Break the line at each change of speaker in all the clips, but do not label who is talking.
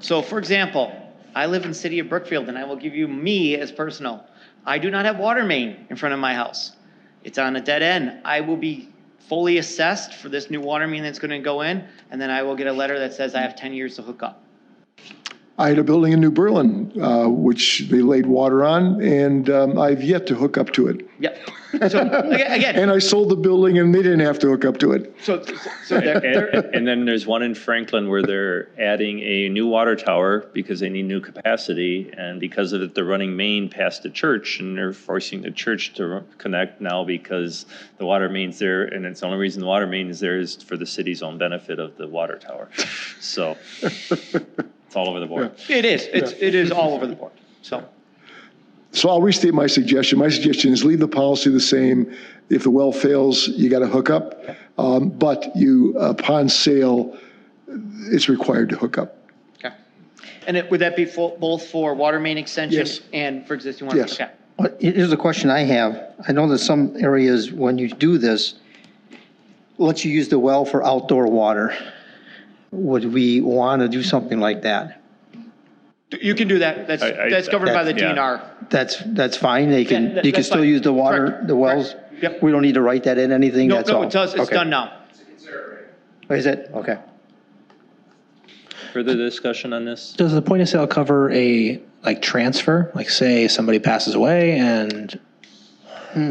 So for example, I live in the city of Brookfield and I will give you me as personal. I do not have water main in front of my house. It's on a dead end. I will be fully assessed for this new water main that's gonna go in, and then I will get a letter that says I have ten years to hook up.
I had a building in New Berlin, uh, which they laid water on, and um, I've yet to hook up to it.
Yep. So aga-
And
again,
I sold the building and they didn't have to hook up to it.
so, so there,
And,
there,
and then there's one in Franklin where they're adding a new water tower because they need new capacity. And because of it, they're running main past the church and they're forcing the church to r- connect now because the water main's there. And it's the only reason the water main is there is for the city's own benefit of the water tower. So it's all over the board.
it is, it's, it is all over the board, so.
So I'll restate my suggestion. My suggestion is leave the policy the same. If the well fails, you got to hook up. Um, But you, upon sale, it's required to hook up.
Okay. And it, would that be for, both for water main extension
Yes.
and for existing water?
Yes.
Okay.
Well, Here's a question I have. I know that some areas, when you do this, lets you use the well for outdoor water. Would we want to do something like that?
You can do that, that's,
I- I-
that's governed by the
yeah.
DNR.
That's, that's fine, they
Yeah,
can,
that-
you can
that's
still
fine.
use the water,
Correct,
the wells?
correct. Yep.
We don't need to write that in anything,
No,
that's all?
no, it does, it's
Okay.
done now.
Is it? Okay.
Further discussion on this?
Does the point of sale cover a like transfer? Like say somebody passes away and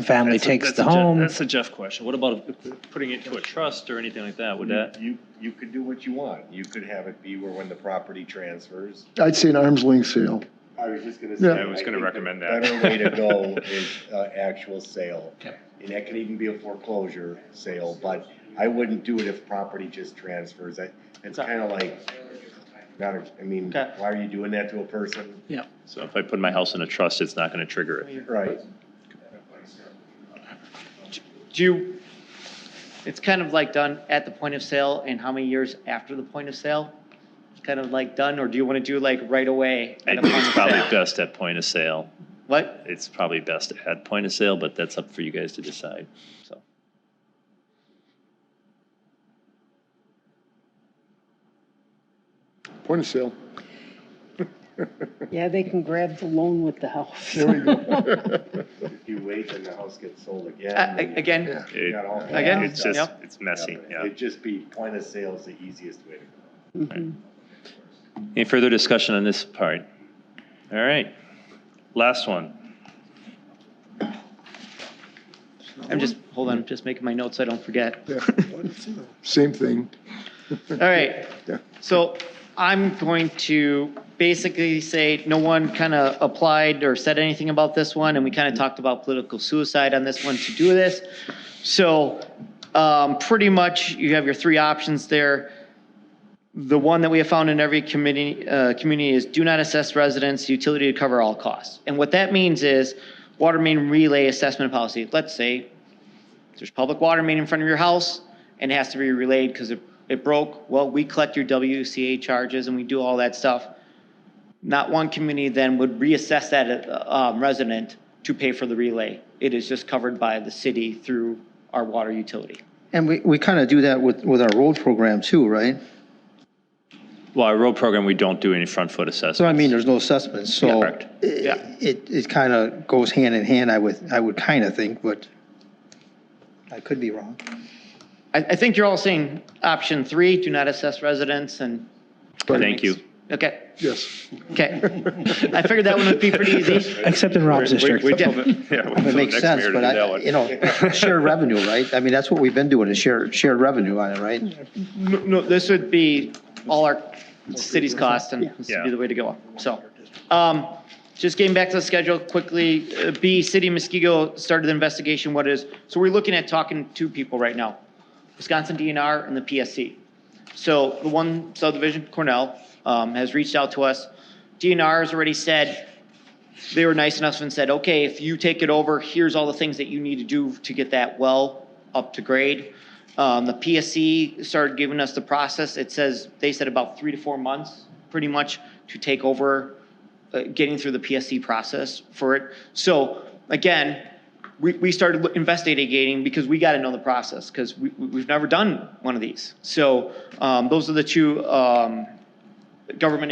family takes
Hmm. That's
the
a Jeff-
home?
That's a Jeff question. What about putting it to a trust or anything like that? Would that?
You, you could do what you want. You could have it be where when the property transfers.
I'd say an arm's length sale.
I was just gonna
say, Yeah. I
was gonna
think the
recommend that.
Better way to go is, uh, actual sale. And that could even be a foreclosure sale, but I wouldn't do it if property just transfers. I, it's
Okay.
kinda like, not, a- I mean,
Okay.
why are you doing that to a person?
So if I put my house in a trust, it's not going to trigger it.
Right.
Do you, it's kind of like done at the point of sale and how many years after the point of sale? It's Kind of like done, or do you want to do like right away?
I
at a
think
point
it's
of
probably
sale?
best at point of sale.
What?
It's probably best at point of sale, but that's up for you guys to decide. So
Point of sale.
Yeah, they can grab the loan with the house.
There we go.
If you wait, then the house gets sold again.
Uh, a- Again,
Yeah.
it-
Got all
Again?
kinds of
it's
stuff.
just,
Yep.
it's messy, yeah.
It'd just be point of sale is the easiest way to go.
Any further discussion on this part? All right, last one.
I'm just, hold on, I'm just making my notes, so I don't forget.
Yeah. Same thing.
All right,
Yeah.
so I'm going to basically say no one kind of applied or said anything about this one, and we kind of talked about political suicide on this one to do this. So, um, pretty much you have your three options there. The one that we have found in every committee, uh, community is do not assess residents, utility to cover all costs. And what that means is water main relay assessment policy. Let's say there's public water main in front of your house and it has to be relayed because it, it broke. Well, we collect your WCA charges and we do all that stuff. Not one community then would reassess that uh, um, resident to pay for the relay. It is just covered by the city through our water utility.
And we, we kind of do that with, with our road program too, right?
Well, our road program, we don't do any front foot
So I
assessment.
mean, there's no assessments, so.
Correct.
Yeah.
i- It, it kind of goes hand in hand, I would, I would kind of think, but I could be wrong.
I, I think you're all saying option three, do not assess residents and.
Thank you.
Okay,
Yes.
okay. I figured that one would be pretty easy.
Except in Rob's district.
It makes sense, but I, you know, shared revenue, right? I mean, that's what we've been doing, is shared, shared revenue on it, right?
No, no, this would be all our city's cost and this would be the way to go, so. Um, just getting back to the schedule quickly, uh, B, City of Muskego started the investigation, what is, so we're looking at talking to people right now. Wisconsin DNR and the PSC. So the one subdivision, Cornell, um, has reached out to us. DNR has already said, they were nice enough and said, okay, if you take it over, here's all the things that you need to do to get that well up to grade. Um, the PSC started giving us the process. It says, they said about three to four months, pretty much, to take over, uh, getting through the PSC process for it. So again, we, we started investigating because we got to know the process because we, we- we've never done one of these. So um, those are the two um, government